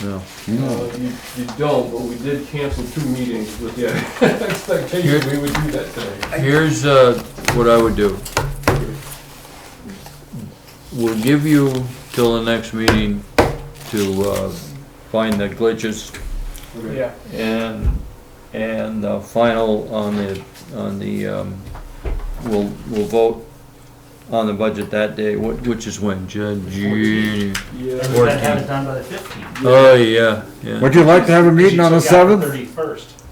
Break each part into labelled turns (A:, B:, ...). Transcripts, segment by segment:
A: No.
B: Uh, You you don't, but we did cancel two meetings with the expectation we would do that today.
A: Here's uh, what I would do. We'll give you till the next meeting to uh, find the glitches
B: Yeah.
A: and, and uh, final on the, on the, um, we'll, we'll vote on the budget that day, wh- which is when, June? June?
B: Yeah.
C: We've got to have it done by the fifteenth.
A: Oh, yeah, yeah.
D: Would you like to have a meeting on the seventh?
C: Thirty-first.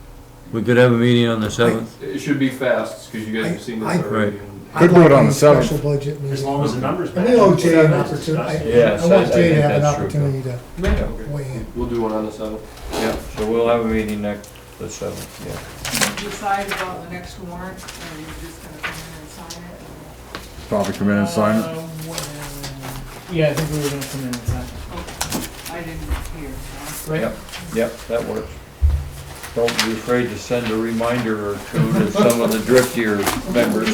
A: We could have a meeting on the seventh.
B: It should be fast, because you guys have seen
E: I-
B: this
E: I-
B: already.
D: Could do it on the seventh.
E: Special budget
C: As
E: meeting.
C: long as the numbers.
E: And we owe
C: match.
E: Jay an
C: It's
E: opportunity.
C: discussed.
A: Yes,
E: I want
A: I- I
E: Jay to
A: think
E: have an
A: that's true, Bill.
E: opportunity to
B: Yeah,
E: weigh in.
B: We'll do one on the seventh.
A: Yeah, so we'll have a meeting next, the seventh, yeah.
F: decide about the next warrant, or you're just gonna come in and sign it?
D: Probably come in and sign
C: Um,
D: it.
G: Yeah, I think we were gonna come in and sign.
F: oh, I didn't hear, so.
G: Right.
A: Yep, yep, that works. Don't be afraid to send a reminder or two to some of the driftier members.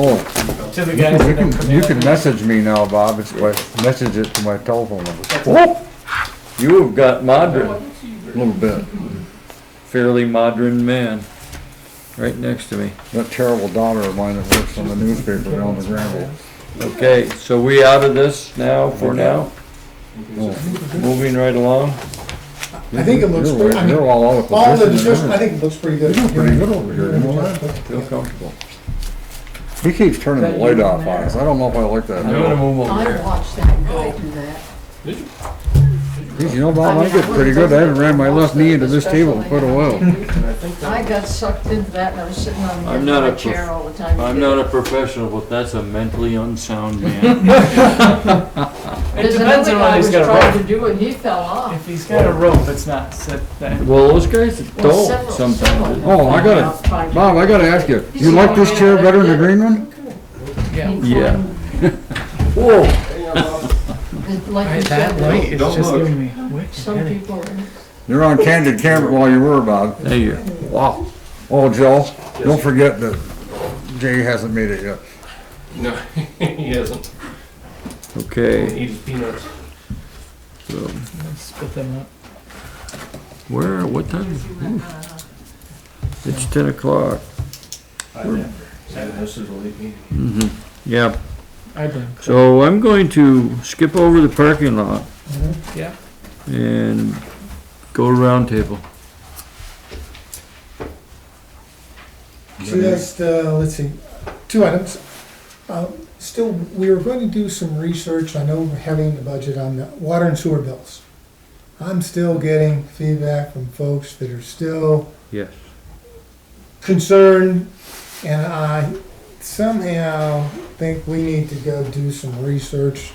D: Oh,
G: To the
D: you
G: guys that
D: can,
G: have come in.
D: you can message me now, Bob. It's my, message it to my telephone number. Whoop!
A: You have got modern,
D: A little bit.
A: fairly modern man, right next to me.
D: That terrible daughter of mine that works on the newspaper down the gravel.
A: Okay, so we out of this now, for now, moving right along.
E: I think it looks
D: You're,
E: pretty, I mean,
D: you're all out of
E: all the
D: position.
E: discussion, I
D: there.
E: think it looks pretty good.
D: You're pretty good over here, you know that?
A: Feel comfortable.
D: He keeps turning the light off on us. I don't know if I like
A: I'm
D: that.
A: gonna move over
H: I
A: here.
H: watched that
F: Oh.
H: guy do that.
D: Geez, You know, Bob, I get pretty good. I haven't ran my left knee into this table in quite a while.
H: I got sucked into that and I was sitting on the
A: I'm
H: edge
A: not
H: of
A: a
H: my chair
A: prof-
H: all the time.
A: I'm not a professional, but that's a mentally unsound man.
G: It
H: There's
G: depends
H: another
G: on whether
H: guy
G: he's
H: was
G: got a
H: trying
G: rope.
H: to do it, he fell off.
G: If he's got
C: Oh.
G: a rope, it's not set that.
A: Well, those guys
H: Well,
A: don't
H: several-
A: sometimes.
H: several
D: Oh, I gotta-
H: out trying to-
D: Bob, I gotta ask you, you like this chair better than the green one?
G: Yeah.
A: Yeah.
D: Whoa!
H: It's Like you said,
G: light is
B: Don't
G: just
B: look.
G: giving me. wicked
H: some
G: headache.
H: people are.
D: You're on candid camera while you were about.
A: There you,
D: Wow. Oh, Joe, don't forget that Jay hasn't made it yet.
B: No, he hasn't.
A: okay.
B: He eats peanuts.
G: Split them up.
A: Where, what time? Ooh.
F: uh-huh.
A: It's ten o'clock.
B: This is a late meeting.
A: Yeah,
G: I blame.
A: so I'm going to skip over the parking lot
G: Yeah.
A: and go to roundtable.
E: Just, uh, let's see, two items. Um, Still, we are going to do some research, I know we're having the budget on the water and sewer bills. I'm still getting feedback from folks that are still
A: Yes.
E: concerned, and I somehow think we need to go do some research.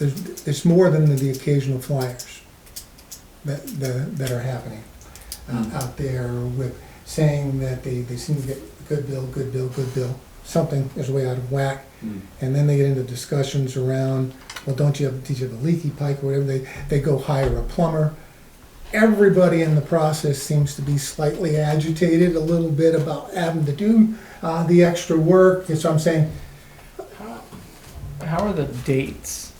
E: There's, it's more than the occasional flyers that, that that are happening uh, out there with saying that they, they seem to get good bill, good bill, good bill. Something is way out of whack.
B: Hmm.
E: And then they get into discussions around, well, don't you have, did you have a leaky pipe or whatever? They, they go hire a plumber. Everybody in the process seems to be slightly agitated a little bit about having to do uh, the extra work. And so I'm saying,
G: How are the dates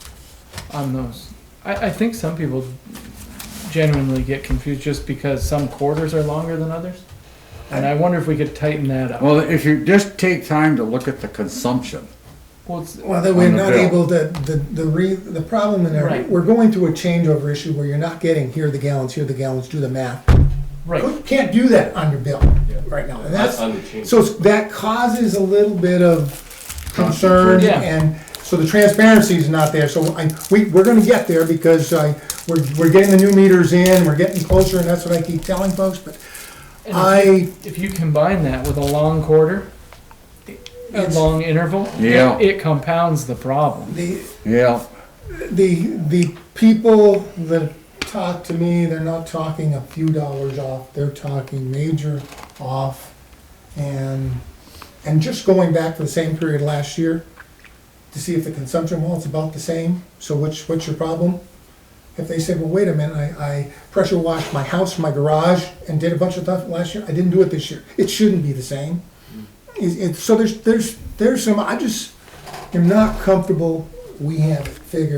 G: on those? I, I think some people genuinely get confused just because some quarters are longer than others. And I wonder if we could tighten that up.
D: Well, if you just take time to look at the consumption.
G: Well, it's,
E: well, that we're
D: On the
E: not
D: bill.
E: able to, the, the re, the problem in there,
G: Right.
E: we're going through a changeover issue where you're not getting here are the gallons, here are the gallons, do the math.
G: right.
E: You Can't do that on your bill right now. And that's,
B: On the change.
E: So it's- that causes a little bit of concern,
G: Yeah.
E: and so the transparency is not there, so I, we, we're gonna get there, because I, we're, we're getting the new meters in, we're getting closer, and that's what I keep telling folks, but
G: And if
E: I,
G: If you combine that with a long quarter, a
E: It's-
G: long interval,
D: Yeah.
G: it, it compounds the problem.
E: the,
D: Yeah,
E: the, the people that talk to me, they're not talking a few dollars off, they're talking major off. And, and just going back to the same period last year, to see if the consumption, well, it's about the same, so what's, what's your problem? If they say, well, wait a minute, I, I pressure washed my house, my garage, and did a bunch of stuff last year, I didn't do it this year, it shouldn't be the same. It, it, so there's, there's, there's some, I just am not comfortable, we have it figured